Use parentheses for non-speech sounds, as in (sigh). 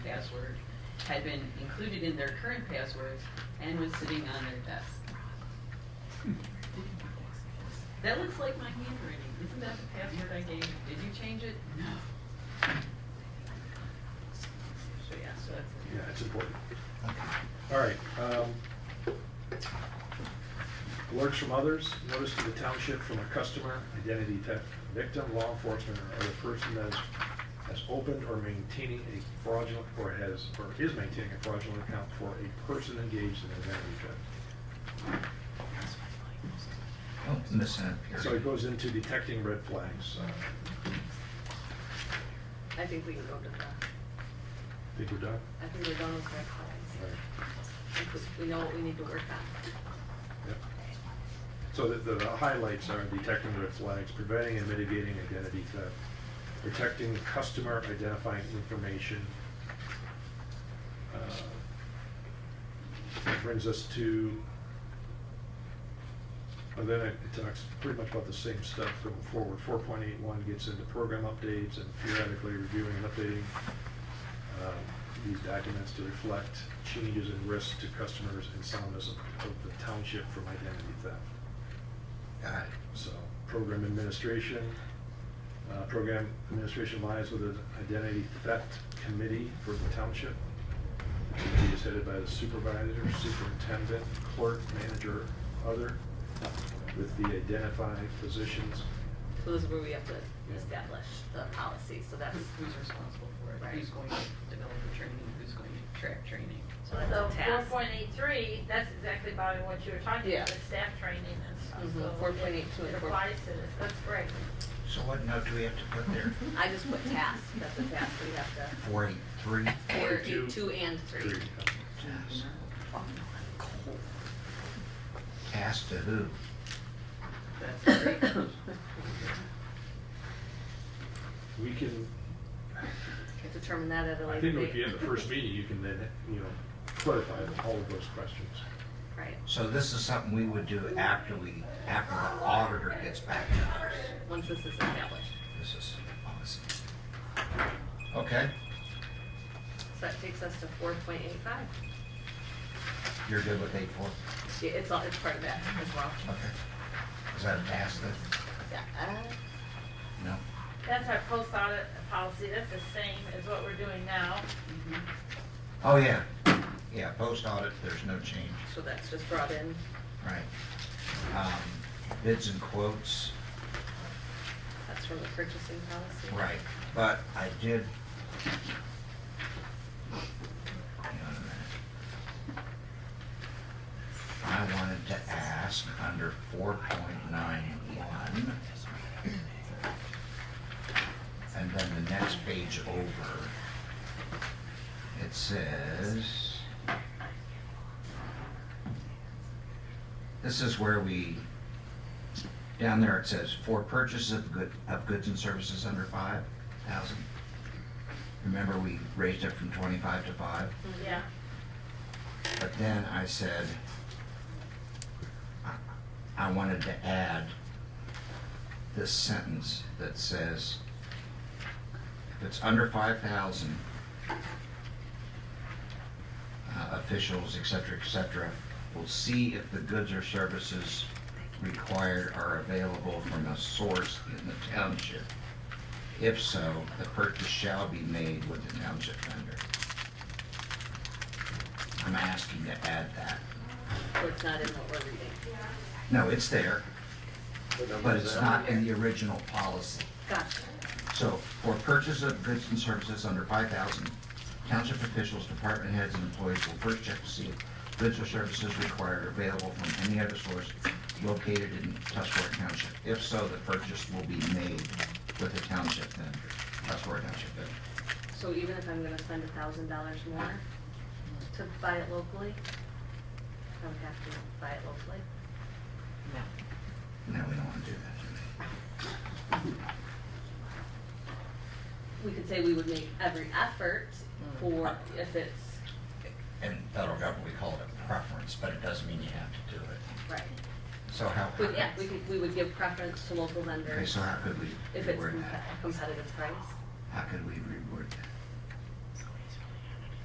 password had been included in their current passwords and was sitting on their desk. That looks like my handwriting. Isn't that the password I gave? Did you change it? No. So, yeah, so that's it. Yeah, it's important. All right. um, Alerts from others, notice to the township from a customer, identity theft victim, law enforcement, or other person that has has opened or maintaining a fraudulent, or has, or is maintaining a fraudulent account for a person engaged in identity theft. Oh, Missing a period. So it goes into detecting red flags. Uh, I think we can go to the, Think we're done? I think we're done with red All flags. right. I think We know what we need to work on. Yep. So the, the highlights are detecting red flags, preventing and mitigating identity theft, protecting customer identifying information. Uh, that Brings us to, and then it talks pretty much about the same stuff going forward. Four point eight one gets into program updates and periodically reviewing and updating um, these documents to reflect changes in risk to customers and soundness of of the township from identity theft. Got it. So, program administration, uh, program administration lies with an identity theft committee for the township. The Committee is headed by the supervisor, superintendent, clerk, manager, other, with the identified positions. So this is where we have to establish the policy, so that's. Who's who's responsible for it? Right. Who's going to develop the training? Who's going to track training? So That's the a four task. point eight three, that's exactly Bobby what you were talking Yeah. about, the staff training and stuff. Mhm, So 4.82 and It 4 applies to this, that's great. So what note do we have to put there? I just put task, that's a task we have to. Forty-three? Or Forty-two. do two and three. Task. Task to who? That's great. We can, We'll (laughs) Determine that at a I later think date. if you have the first meeting, you can then, you know, clarify all of those questions. Right, So this is something we would do after we, after the auditor gets back to us. once this is established. This is policy. Okay, So that takes us to four point eight five. you're good with eight four? It's all, it's part of that as well. Okay. Is that a task then? Yeah, uh, No? That's our post audit policy, that's the same as what we're doing now. Mm-hmm. Oh, yeah. Yeah, post audit, there's no change. So that's just brought in. Right. Um, Bids and quotes, That's from the purchasing policy. right, but I did. Hang on a minute. I wanted to ask under four point nine one. And then the next page over. It says. This is where we, down there it says, for purchases of good, of goods and services under five thousand. Remember, we raised it from twenty-five to five, Mm-hmm. Yeah, but then I said, I- I wanted to add this sentence that says, if it's under five thousand, uh, officials, et cetera, et cetera, will see if the goods or services required are available from a source in the township. If so, the purchase shall be made with the township vendor. I'm asking to add that. So it's not in what we're reading. No, it's there, but it's not in the original policy. Gotcha. So, for purchase of goods and services under five thousand, township officials, department heads, and employees will first check to see if goods or services required are available from any other source located in Tuscarawas Township. If so, the purchase will be made with the township vendor, Tuscarawas Township vendor. So even if I'm gonna spend a thousand dollars more to buy it locally, I would have to buy it locally? No, we don't wanna do that. We could say we would make every effort for, if it's, In federal government, we call it a preference, but it doesn't mean you have to do it. right. So how? We, yeah, we could, we would give preference to local Okay, vendors so how could we if it's reword compe- that? competitive price. How could we reword that?